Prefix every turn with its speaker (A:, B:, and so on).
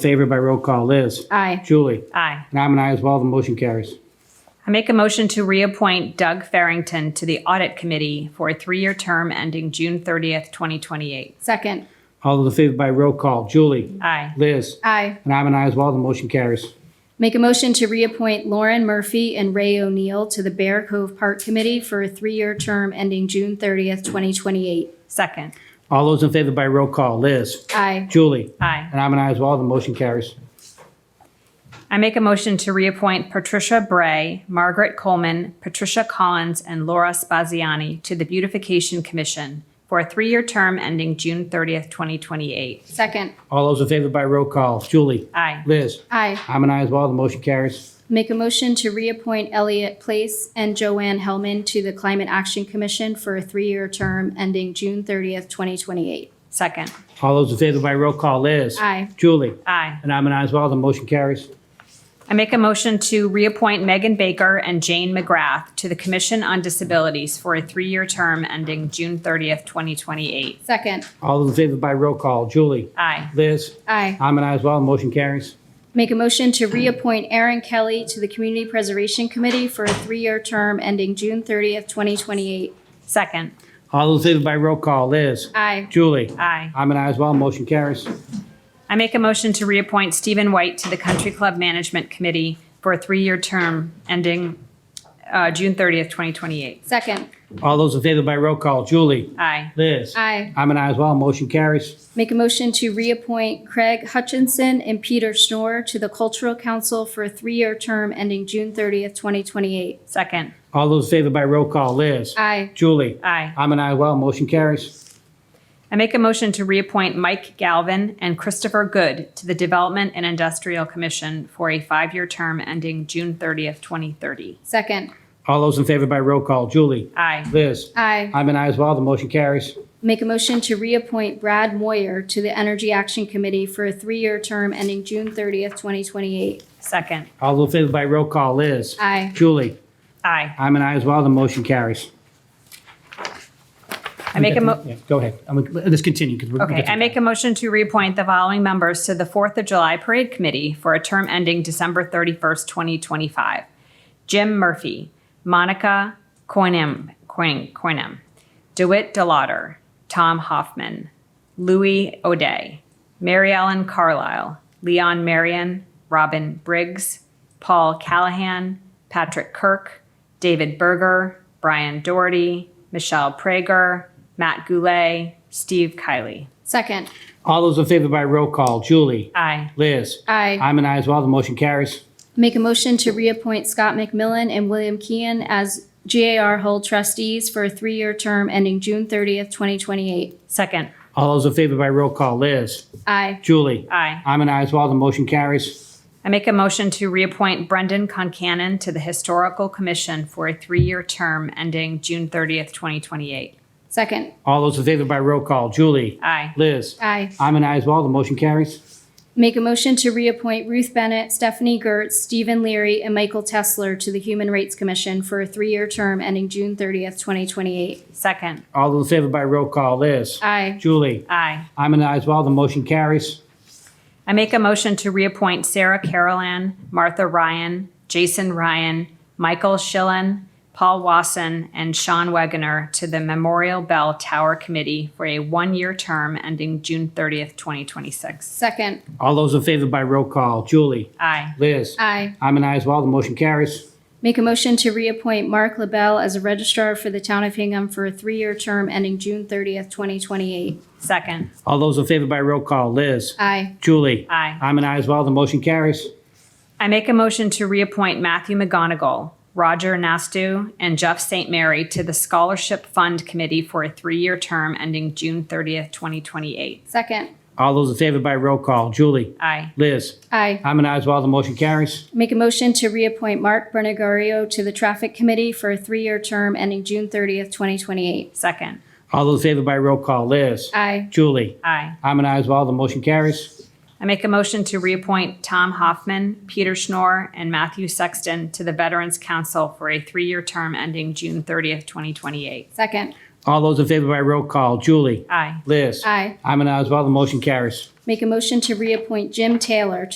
A: Favor by roll call, Liz.
B: Aye.
A: Julie.
C: Aye.
A: And I'm an aye as well, the motion carries.
C: I make a motion to reappoint Doug Farrington to the Audit Committee for a three-year term ending June 30th, 2028.
B: Second.
A: All those in favor by roll call, Julie.
C: Aye.
A: Liz.
B: Aye.
A: And I'm an aye as well, the motion carries.
B: Make a motion to reappoint Lauren Murphy and Ray O'Neill to the Bear Cove Park Committee for a three-year term ending June 30th, 2028.
C: Second.
A: All those in favor by roll call, Liz.
B: Aye.
A: Julie.
C: Aye.
A: And I'm an aye as well, the motion carries.
C: I make a motion to reappoint Patricia Bray, Margaret Coleman, Patricia Collins, and Laura Spaziani to the Beautification Commission for a three-year term ending June 30th, 2028.
B: Second.
A: All those in favor by roll call, Julie.
C: Aye.
A: Liz.
B: Aye.
A: I'm an aye as well, the motion carries.
B: Make a motion to reappoint Elliot Place and Joanne Hellman to the Climate Action Commission for a three-year term ending June 30th, 2028.
C: Second.
A: All those in favor by roll call, Liz.
B: Aye.
A: Julie.
C: Aye.
A: And I'm an aye as well, the motion carries.
C: I make a motion to reappoint Megan Baker and Jane McGrath to the Commission on Disabilities for a three-year term ending June 30th, 2028.
B: Second.
A: All those in favor by roll call, Julie.
C: Aye.
A: Liz.
B: Aye.
A: I'm an aye as well, the motion carries.
B: Make a motion to reappoint Aaron Kelly to the Community Preservation Committee for a three-year term ending June 30th, 2028.
C: Second.
A: All those in favor by roll call, Liz.
B: Aye.
A: Julie.
C: Aye.
A: I'm an aye as well, motion carries.
C: I make a motion to reappoint Stephen White to the Country Club Management Committee for a three-year term ending uh, June 30th, 2028.
B: Second.
A: All those in favor by roll call, Julie.
C: Aye.
A: Liz.
B: Aye.
A: I'm an aye as well, motion carries.
B: Make a motion to reappoint Craig Hutchinson and Peter Schnorr to the Cultural Council for a three-year term ending June 30th, 2028.
C: Second.
A: All those in favor by roll call, Liz.
B: Aye.
A: Julie.
C: Aye.
A: I'm an aye as well, motion carries.
C: I make a motion to reappoint Mike Galvin and Christopher Good to the Development and Industrial Commission for a five-year term ending June 30th, 2030.
B: Second.
A: All those in favor by roll call, Julie.
C: Aye.
A: Liz.
B: Aye.
A: I'm an aye as well, the motion carries.
B: Make a motion to reappoint Brad Moyer to the Energy Action Committee for a three-year term ending June 30th, 2028.
C: Second.
A: All those in favor by roll call, Liz.
B: Aye.
A: Julie.
C: Aye.
A: I'm an aye as well, the motion carries.
C: I make a mo,
A: Yeah, Go ahead. I'm- Let's continue. 'cause we're-
C: okay, I make a motion to reappoint the following members to the Fourth of July Parade Committee for a term ending December thirty-first, twenty twenty-five. Jim Murphy, Monica Coinam, Coin, Coinam, DeWitt Delauder, Tom Hoffman, Louis O'Day, Mary Ellen Carlisle, Leon Marion, Robin Briggs, Paul Callahan, Patrick Kirk, David Berger, Brian Doherty, Michelle Prager, Matt Goulet, Steve Kiley.
B: Second.
A: All those in favor by roll call, Julie.
C: Aye.
A: Liz.
B: Aye.
A: I'm an aye as well, the motion carries.
B: Make a motion to reappoint Scott McMillan and William Kean as GAR Hull trustees for a three-year term ending June 30th, 2028.
C: Second.
A: All those in favor by roll call, Liz.
B: Aye.
A: Julie.
C: Aye.
A: I'm an aye as well, the motion carries.
C: I make a motion to reappoint Brendan Concanon to the Historical Commission for a three-year term ending June 30th, 2028.
B: Second.
A: All those in favor by roll call, Julie.
C: Aye.
A: Liz.
B: Aye.
A: I'm an aye as well, the motion carries.
B: Make a motion to reappoint Ruth Bennett, Stephanie Gertz, Stephen Leary, and Michael Tesler to the Human Rights Commission for a three-year term ending June 30th, 2028.
C: Second.
A: All those in favor by roll call, Liz.
B: Aye.
A: Julie.
C: Aye.
A: I'm an aye as well, the motion carries.
C: I make a motion to reappoint Sarah Carolan, Martha Ryan, Jason Ryan, Michael Schillen, Paul Wasson, and Sean Wegener to the Memorial Bell Tower Committee for a one-year term ending June 30th, 2026.
B: Second.
A: All those in favor by roll call, Julie.
C: Aye.
A: Liz.
B: Aye.
A: I'm an aye as well, the motion carries.
B: Make a motion to reappoint Mark LaBelle as a registrar for the Town of Hingham for a three-year term ending June 30th, 2028.
C: Second.
A: All those in favor by roll call, Liz.
B: Aye.
A: Julie.
C: Aye.
A: I'm an aye as well, the motion carries.
C: I make a motion to reappoint Matthew McGonigal, Roger Nastu, and Jeff St. Mary to the Scholarship Fund Committee for a three-year term ending June 30th, 2028.
B: Second.
A: All those in favor by roll call, Julie.
C: Aye.
A: Liz.
B: Aye.
A: I'm an aye as well, the motion carries.
B: Make a motion to reappoint Mark Bernigario to the Traffic Committee for a three-year term ending June 30th, 2028.
C: Second.
A: All those in favor by roll call, Liz.
B: Aye.
A: Julie.
C: Aye.
A: I'm an aye as well, the motion carries.
C: I make a motion to reappoint Tom Hoffman, Peter Schnorr, and Matthew Sexton to the Veterans Council for a three-year term ending June 30th, 2028.
B: Second.
A: All those in favor by roll call, Julie.
C: Aye.
A: Liz.
B: Aye.
A: I'm an aye as well, the motion carries.
B: Make a motion to reappoint Jim Taylor